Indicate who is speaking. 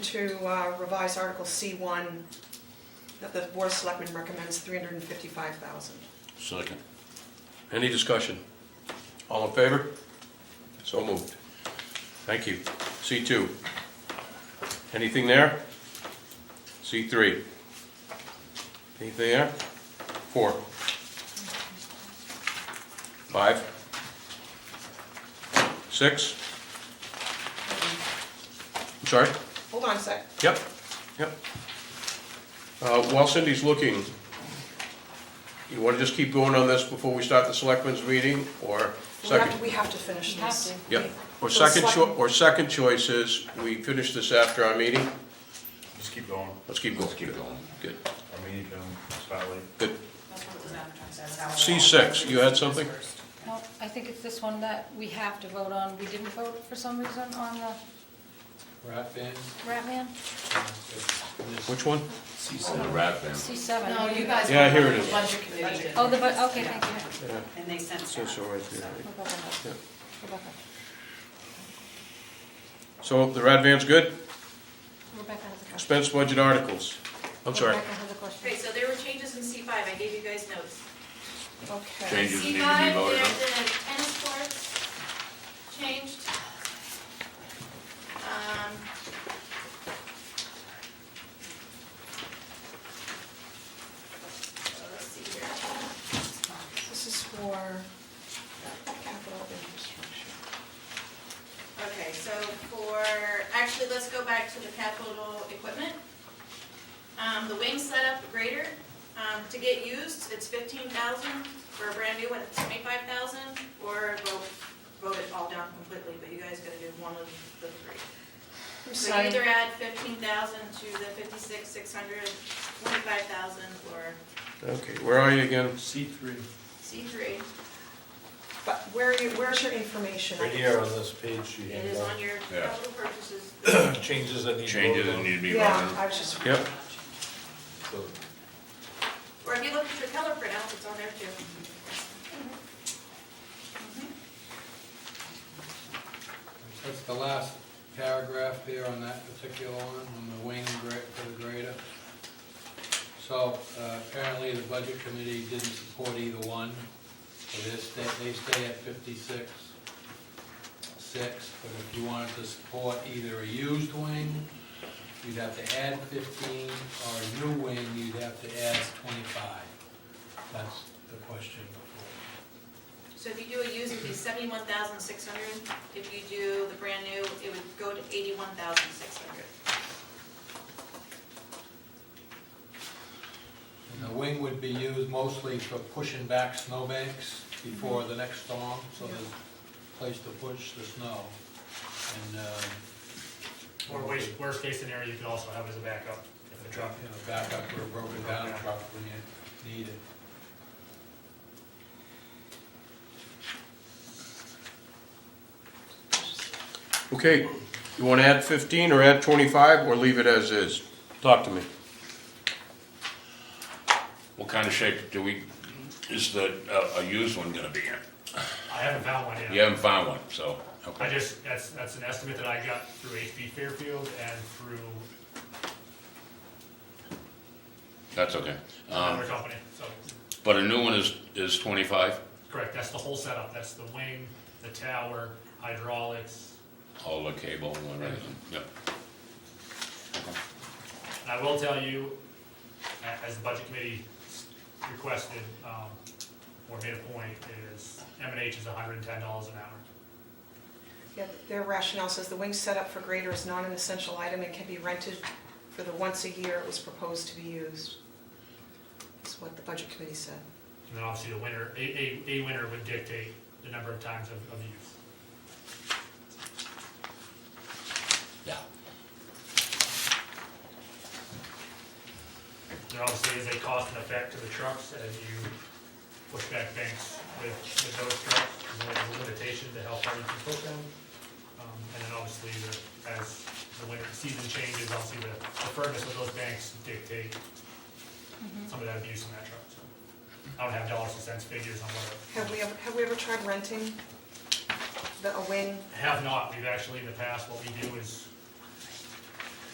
Speaker 1: to uh, revise Article C1, that the Board of Selectmen recommends 355,000.
Speaker 2: Second.
Speaker 3: Any discussion? All in favor? So moved. Thank you. C2. Anything there? C3. Anything there? Four. Five. Six. I'm sorry?
Speaker 1: Hold on a sec.
Speaker 3: Yep, yep. Uh, While Cindy's looking, you want to just keep going on this before we start the selectmen's meeting, or
Speaker 1: We have
Speaker 3: second?
Speaker 1: to- We have to finish
Speaker 4: We have
Speaker 1: this.
Speaker 4: to.
Speaker 3: Yep, or
Speaker 1: So the
Speaker 3: second, cho-
Speaker 1: select-
Speaker 3: or second choice is, we finish this after our meeting?
Speaker 5: Just keep going.
Speaker 3: Let's keep going. Good. Good,
Speaker 5: I mean, you can start late.
Speaker 3: good.
Speaker 4: That's what it was advertised as, that was all.
Speaker 3: C6, you had something?
Speaker 6: No, I think it's this one that we have to vote on. We didn't vote for some reason on the
Speaker 7: Rat band.
Speaker 6: Rat Man,
Speaker 3: Which one?
Speaker 2: The rat band.
Speaker 6: C7.
Speaker 4: No, you guys. went
Speaker 3: Yeah, here
Speaker 4: on
Speaker 3: it
Speaker 4: the
Speaker 3: is.
Speaker 4: Budget committee.
Speaker 6: Oh, the, bu- okay, thank you.
Speaker 3: Yeah,
Speaker 4: And they sent
Speaker 3: so, so
Speaker 4: that.
Speaker 3: right there.
Speaker 6: We'll go with
Speaker 3: Yeah.
Speaker 6: that. Rebecca.
Speaker 3: So the rat van's good?
Speaker 6: Rebecca has a question.
Speaker 3: Expense budget articles. I'm sorry.
Speaker 6: Rebecca has a question.
Speaker 8: Okay, so there were changes in C five, I gave you guys notes.
Speaker 1: Okay.
Speaker 2: Changes need to be voted on.
Speaker 8: C five, the tennis courts changed. Um, so Let's see here.
Speaker 1: This is for capital infrastructure.
Speaker 8: Okay, so for, actually, let's go back to the capital equipment. Um, the wing setup grader, um, to get used, it's fifteen thousand, for a brand new one, it's twenty-five thousand, or vote, vote it all down completely, but you guys gotta do one of the three.
Speaker 1: I'm
Speaker 8: So
Speaker 1: sorry.
Speaker 8: either add fifteen thousand to the fifty-six, six hundred, twenty-five thousand, or
Speaker 3: Okay, where are you again?
Speaker 7: C three.
Speaker 8: C three,
Speaker 1: But where are you, where's your information?
Speaker 7: Right here on this page you
Speaker 8: it
Speaker 7: handed
Speaker 8: is
Speaker 7: out.
Speaker 8: on your
Speaker 2: Yeah.
Speaker 8: capital purchases.
Speaker 7: Changes that need to
Speaker 2: Changes
Speaker 7: voted
Speaker 2: that
Speaker 7: on.
Speaker 2: need to be voted
Speaker 1: Yeah,
Speaker 2: on.
Speaker 1: I was just,
Speaker 3: Yep,
Speaker 7: So,
Speaker 8: Or if you look at your color printouts, it's on there too.
Speaker 7: That's the last paragraph there on that particular one, on the wing gra- for the grader. So uh, apparently the budget committee didn't support either one. So they stay, they stay at fifty-six, six. But if you wanted to support either a used wing, you'd have to add fifteen, or a new wing, you'd have to add twenty-five. That's the question before.
Speaker 8: So if you do a used, it'd be seventy-one thousand six hundred. If you do the brand new, it would go to eighty-one thousand six hundred.
Speaker 7: And the wing would be used mostly for pushing back snowbanks before the next storm, so there's a place to push the snow. And, um...
Speaker 9: Or worst, worst case scenario, you could also have as a backup if the
Speaker 7: You know,
Speaker 9: truck.
Speaker 7: back up or broken down truck when you need it.
Speaker 3: okay. You want to add 15 or add 25 or leave it as is? Talk to me.
Speaker 2: What kind of shape do we, is the, uh, a used one gonna be in?
Speaker 9: I haven't found one
Speaker 2: You
Speaker 9: yet.
Speaker 2: haven't found one, so, okay.
Speaker 9: I just, that's, that's an estimate that I got through HB Fairfield and through
Speaker 2: That's okay. Um,
Speaker 3: Uh-huh.
Speaker 9: another company, so,
Speaker 2: but a new one is, is twenty-five,
Speaker 9: correct, that's the whole setup, that's the wing, the tower, hydraulics.
Speaker 2: all the cable and everything, yep.
Speaker 9: And I will tell you, a- as the budget committee s- requested, um, or made a point, is M and H is hundred and ten dollars an hour.
Speaker 1: yeah, their rationale says the wing setup for grader is not an essential item and can be rented for the once a year it was proposed to be used. That's what the budget committee said.
Speaker 9: And then obviously the winter, a, a, a winter would dictate the number of times of, of use.
Speaker 2: Yeah.
Speaker 9: There obviously is a cost and effect to the trucks as you push back banks with, with those trucks. There's a limitation to how far you can push them. Um, and then obviously the, as the winter season changes, obviously the, the firmness of those banks dictate some of that abuse on that truck. So I don't have dollars and cents figures on what.
Speaker 1: Have we ever, have we ever tried renting the, a wing?
Speaker 9: Have not, we've actually in the past, what we do is